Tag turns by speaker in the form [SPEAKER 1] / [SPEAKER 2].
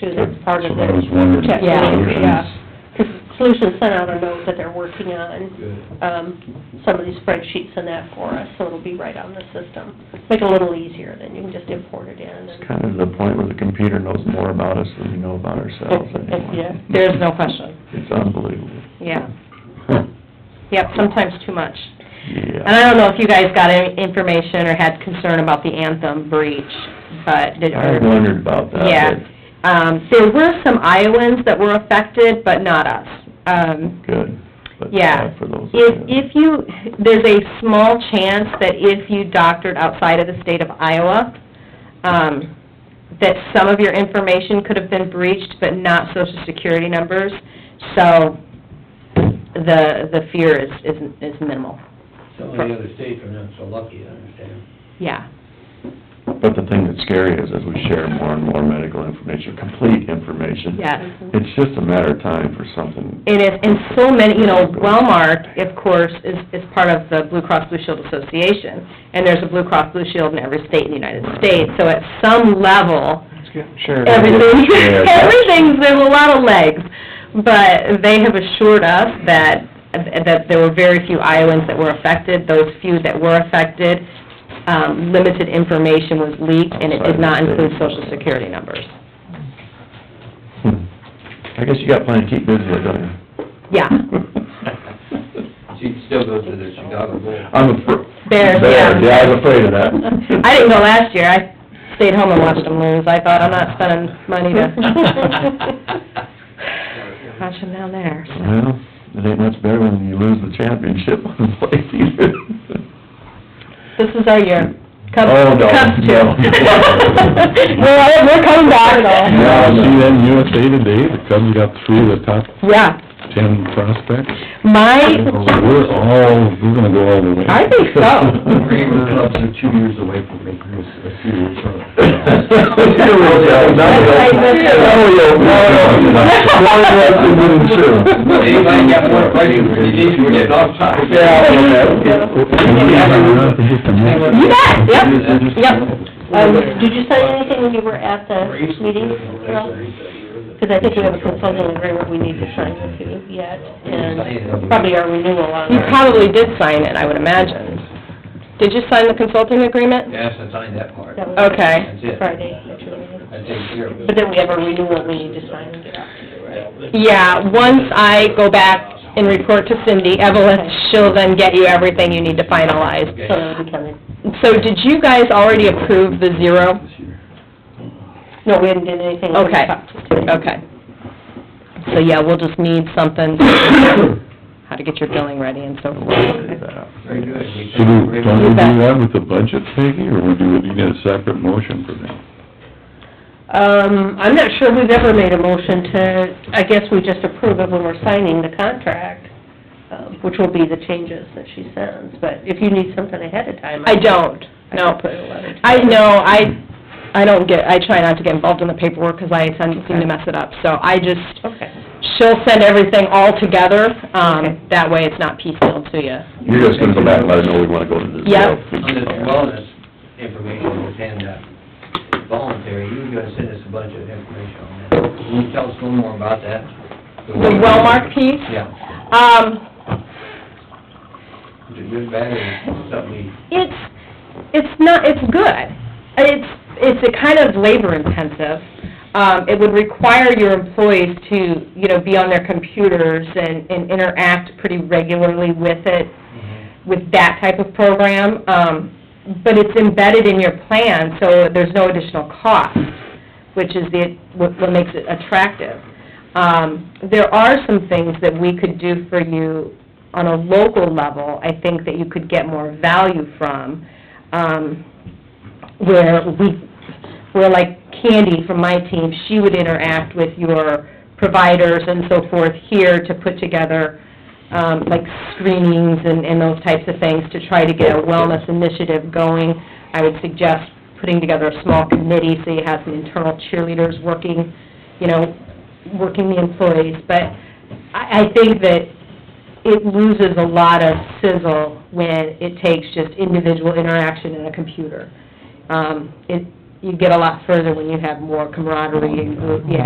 [SPEAKER 1] too, that's part
[SPEAKER 2] So
[SPEAKER 1] of
[SPEAKER 2] I was
[SPEAKER 1] the
[SPEAKER 2] wondering.
[SPEAKER 1] checklist,
[SPEAKER 3] Yeah.
[SPEAKER 1] yeah. Because Solutions sent out a note that they're working on, um, some of these spreadsheets and that for us, so it'll be right on the system. Make it a little easier, then you can just import it in and.
[SPEAKER 4] It's kind of the point where the computer knows more about us than we know about ourselves anymore.
[SPEAKER 1] Yeah.
[SPEAKER 3] There is no question,
[SPEAKER 4] It's unbelievable.
[SPEAKER 3] yeah.
[SPEAKER 4] Huh.
[SPEAKER 3] Yep, sometimes too much. And
[SPEAKER 4] Yeah.
[SPEAKER 3] I don't know if you guys got any information or had concern about the Anthem breach, but did,
[SPEAKER 4] I wondered about that.
[SPEAKER 3] Yeah. um, there were some Iowans that were affected, but not us. Um,
[SPEAKER 4] Good. But
[SPEAKER 3] Yeah.
[SPEAKER 4] bad For those. that
[SPEAKER 3] If,
[SPEAKER 4] do.
[SPEAKER 3] if you, there's a small chance that if you doctored outside of the state of Iowa, um, that some of your information could have been breached, but not social security numbers, so the, the fear is, is is minimal,
[SPEAKER 5] Some of the other states are not so lucky, I understand.
[SPEAKER 3] yeah.
[SPEAKER 4] But the thing that's scary is as we share more and more medical information, complete information.
[SPEAKER 3] Yes.
[SPEAKER 4] It's just a matter of time for something.
[SPEAKER 3] It is, and so many, you know, Wellmark, of course, is, is part of the Blue Cross Blue Shield Association, and there's a Blue Cross Blue Shield in every state in the United States, so at some level,
[SPEAKER 4] Sure.
[SPEAKER 3] everything,
[SPEAKER 4] Yeah,
[SPEAKER 3] everything's, there's a lot of legs. But they have assured us that, that there were very few Iowans that were affected. Those few that were affected, um, limited information was leaked, and it did not include social security numbers.
[SPEAKER 4] Hmm. I guess you got plenty to keep busy with, don't you?
[SPEAKER 3] Yeah,
[SPEAKER 5] She still goes to the Chicago Bowl.
[SPEAKER 4] I'm afraid.
[SPEAKER 3] Bears, yeah.
[SPEAKER 4] Yeah, I was afraid of that.
[SPEAKER 3] I didn't go last year. I stayed home and watched them lose. I thought, I'm not spending money to watch them down there, so.
[SPEAKER 4] Well, it ain't much better when you lose the championship on the plate either.
[SPEAKER 3] This is our year. Cubs,
[SPEAKER 4] Oh, no,
[SPEAKER 3] Cubs too.
[SPEAKER 4] no.
[SPEAKER 3] We're, we're coming back
[SPEAKER 6] Yeah,
[SPEAKER 3] though.
[SPEAKER 6] see that in USA Today, the Cubs got three of the top
[SPEAKER 3] Yeah,
[SPEAKER 6] ten prospects.
[SPEAKER 3] my,
[SPEAKER 6] We're all, we're gonna go all the way.
[SPEAKER 3] I think so.
[SPEAKER 5] Kramer clubs are two years away from making this a serious
[SPEAKER 4] Here we go. Now we go. Now we go. No, no, no. One left and then two.
[SPEAKER 5] Anybody got more questions, you need to get off topic.
[SPEAKER 4] Yeah, okay.
[SPEAKER 3] You bet, yep, yep.
[SPEAKER 1] Um, did you sign anything when you were at the meeting? Because I think we have a consulting agreement we need to sign with you yet, and probably our renewal on
[SPEAKER 3] You
[SPEAKER 1] our...
[SPEAKER 3] probably did sign it, I would imagine. Did you sign the consulting agreement?
[SPEAKER 5] Yes, I signed that part.
[SPEAKER 1] That was
[SPEAKER 3] Okay,
[SPEAKER 5] That's it.
[SPEAKER 1] Friday, that's your meeting.
[SPEAKER 5] I take care of it.
[SPEAKER 1] But then we have a renewal we need to sign and get out to you, right?
[SPEAKER 3] yeah, once I go back and report to Cindy, Evelyn, she'll then get you everything you need to finalize.
[SPEAKER 1] So it'll be coming.
[SPEAKER 3] So did you guys already approve the zero?
[SPEAKER 1] No, we hadn't done anything. We
[SPEAKER 3] Okay.
[SPEAKER 1] talked today.
[SPEAKER 3] Okay. So, yeah, we'll just need something, how to get your billing ready and so forth.
[SPEAKER 5] Very good. We
[SPEAKER 6] So do,
[SPEAKER 5] take-
[SPEAKER 6] don't we do that with the budget, Peggy, or we do, you get a separate motion for that?
[SPEAKER 1] Um, I'm not sure we've ever made a motion to, I guess we just approve of when we're signing the contract, um, which will be the changes that she sends, but if you need something ahead of time.
[SPEAKER 3] I don't, no.
[SPEAKER 1] can put a letter together.
[SPEAKER 3] I, no, I, I don't get, I try not to get involved in the paperwork because I tend seem to mess it up. So I just,
[SPEAKER 1] Okay.
[SPEAKER 3] she'll send everything all together,
[SPEAKER 1] Okay.
[SPEAKER 3] um, that way it's not piecemeal to you.
[SPEAKER 4] You're just gonna go back and let her know we wanna go to the
[SPEAKER 3] Yeah.
[SPEAKER 4] zero.
[SPEAKER 5] On this wellness information that's handed out, voluntary, you're gonna send us a bunch of information on that. Can you tell us a little more about that?
[SPEAKER 3] The Wellmark piece?
[SPEAKER 5] Yeah.
[SPEAKER 3] Um,
[SPEAKER 5] Is it good, bad, or something?
[SPEAKER 3] it's, it's not, it's good. It's, it's a kind of labor intensive. Um, it would require your employees to, you know, be on their computers and, and interact pretty regularly with it, with that type of program. Um, but it's embedded in your plan, so there's no additional cost, which is the, what what makes it attractive. Um, there are some things that we could do for you on a local level, I think that you could get more value from, um, where we, where like Candy from my team, she would interact with your providers and so forth here to put together, um, like screenings and, and those types of things to try to get a wellness initiative going. I would suggest putting together a small committee, so you have some internal cheerleaders working, you know, working the employees, but I, I think that it loses a lot of sizzle when it takes just individual interaction in a computer. Um, it, you get a lot further when you have more camaraderie and group, yeah,